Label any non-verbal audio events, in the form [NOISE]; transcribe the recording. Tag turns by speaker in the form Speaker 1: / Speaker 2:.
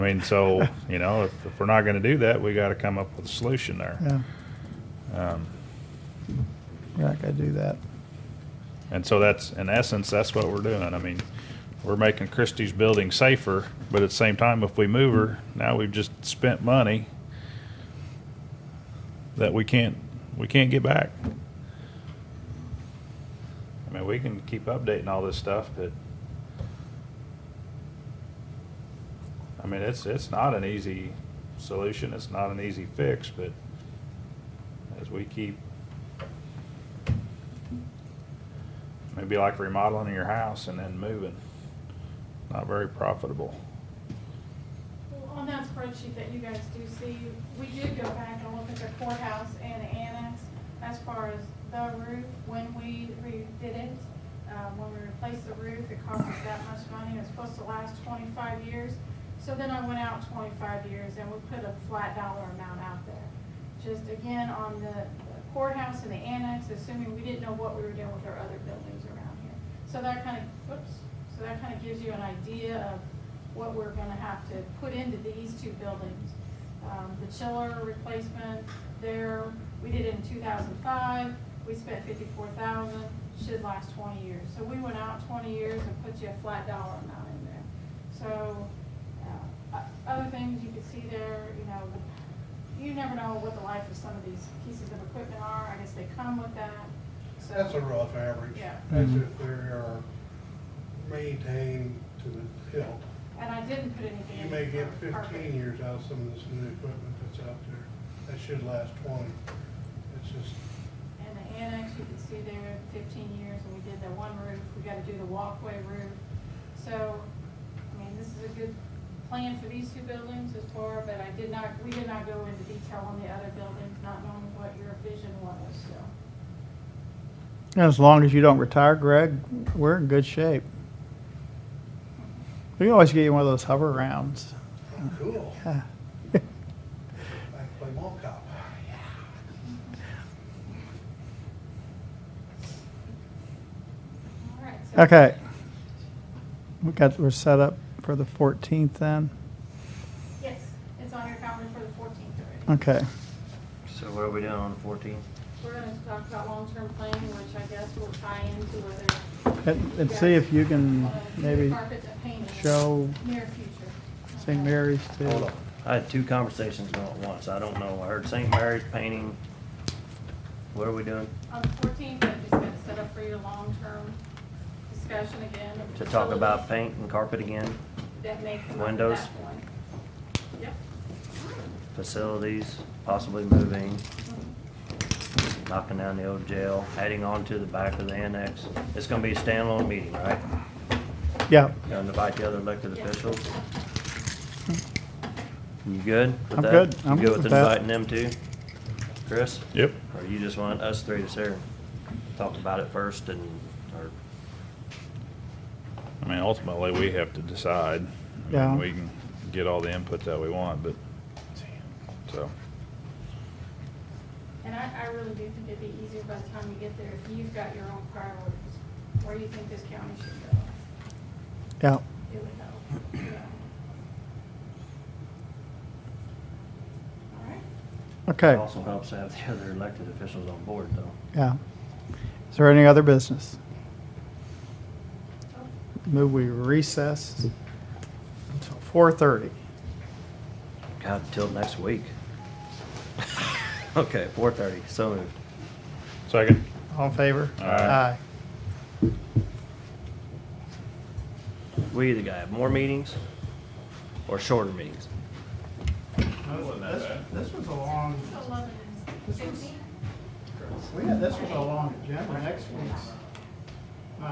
Speaker 1: I mean, so, you know, if, if we're not gonna do that, we gotta come up with a solution there.
Speaker 2: Yeah,
Speaker 1: Um,
Speaker 2: we're not gonna do that.
Speaker 1: And so that's, in essence, that's what we're doing. I mean, we're making Christie's building safer, but at the same time, if we move her, now we've just spent money that we can't, we can't get back. I mean, we can keep updating all this stuff, but I mean, it's, it's not an easy solution. It's not an easy fix, but as we keep Maybe like remodeling your house and then moving. Not very profitable.
Speaker 3: Well, On that spreadsheet that you guys do see, we did go back and look at the courthouse and the annex as far as the roof, when we redid it. Uh, when we replaced the roof, it cost us that much money, it's supposed to last twenty-five years. So then I went out twenty-five years and we put a flat dollar amount out there. Just again, on the courthouse and the annex, assuming we didn't know what we were doing with our other buildings around here. So that kind of, whoops, so that kind of gives you an idea of what we're gonna have to put into these two buildings. Um, the chiller replacement there, we did it in two thousand five, we spent fifty-four thousand, should last twenty years. So we went out twenty years and put you a flat dollar amount in there. So, uh, o- other things you could see there, you know, you never know what the life of some of these pieces of equipment are, I guess they come with that, so.
Speaker 4: That's a rough average.
Speaker 3: Yeah.
Speaker 4: As
Speaker 2: Mhm.
Speaker 4: if they are maintained to the hilt.
Speaker 3: And I didn't put anything in.
Speaker 4: You may get
Speaker 3: for carpet.
Speaker 4: fifteen years out of some of this new equipment that's out there. That should last twenty. It's just,
Speaker 3: And the annex, you can see there, fifteen years, and we did the one roof, we gotta do the walkway roof. So, I mean, this is a good plan for these two buildings as far, but I did not, we did not go into detail on the other buildings, not knowing what your vision was, so.
Speaker 2: And as long as you don't retire, Greg, we're in good shape. We can always get you one of those hover rounds. [LAUGHS]
Speaker 4: oh, cool. I
Speaker 2: Yeah.
Speaker 4: can play mall cop.
Speaker 3: All right, so-
Speaker 2: Okay. We got, we're set up for the 14th then?
Speaker 3: Yes, it's on your calendar for the fourteenth already.
Speaker 2: Okay.
Speaker 5: So what are we doing on the fourteenth?
Speaker 3: We're gonna talk about long-term planning, which I guess will tie into whether.
Speaker 2: And, and see if you can
Speaker 3: uh,
Speaker 2: maybe
Speaker 3: Carpet and painting.
Speaker 2: show
Speaker 3: Near future.
Speaker 2: St. Mary's
Speaker 5: Hold on.
Speaker 2: to,
Speaker 5: I had two conversations going at once. I don't know. I heard St. Mary's painting. What are we doing?
Speaker 3: On the fourteenth, I'm just gonna set up for your long-term discussion again. of
Speaker 5: To talk about
Speaker 3: facilities
Speaker 5: paint and carpet again,
Speaker 3: That may come up at
Speaker 5: windows.
Speaker 3: that point. Yep.
Speaker 5: facilities, possibly moving, knocking down the old jail, adding on to the back of the annex. It's gonna be a standalone meeting, right?
Speaker 2: yeah,
Speaker 5: Gonna invite the other elected
Speaker 3: Yeah.
Speaker 5: officials. You good with
Speaker 2: I'm
Speaker 5: that?
Speaker 2: good.
Speaker 5: You
Speaker 2: I'm good
Speaker 5: good with
Speaker 2: with that.
Speaker 5: inviting them too? Chris?
Speaker 1: Yep.
Speaker 5: Or you just want us three to sit here and talk about it first and, or,
Speaker 1: I mean, ultimately, we have to decide. I mean,
Speaker 2: Yeah.
Speaker 1: We can get all the input that we want, but, so,
Speaker 3: And I, I really do think it'd be easier by the time you get there if you've got your own priorities, where you think this county should go.
Speaker 2: yeah.
Speaker 3: It would help, yeah. All right.
Speaker 5: it
Speaker 2: Okay,
Speaker 5: also helps to have the other elected officials on board though.
Speaker 2: yeah. Is there any other business?
Speaker 3: Oh,
Speaker 2: Move we recess until 4:30.
Speaker 5: God, till next week. [LAUGHS] Okay, four thirty, so moved.
Speaker 1: second.
Speaker 2: All in favor?
Speaker 1: Aye.
Speaker 5: We either gotta have more meetings or shorter meetings.
Speaker 2: This was a long,
Speaker 3: Eleven and
Speaker 2: This was-
Speaker 3: fifteen?
Speaker 2: we had, this was a long agenda. Next week's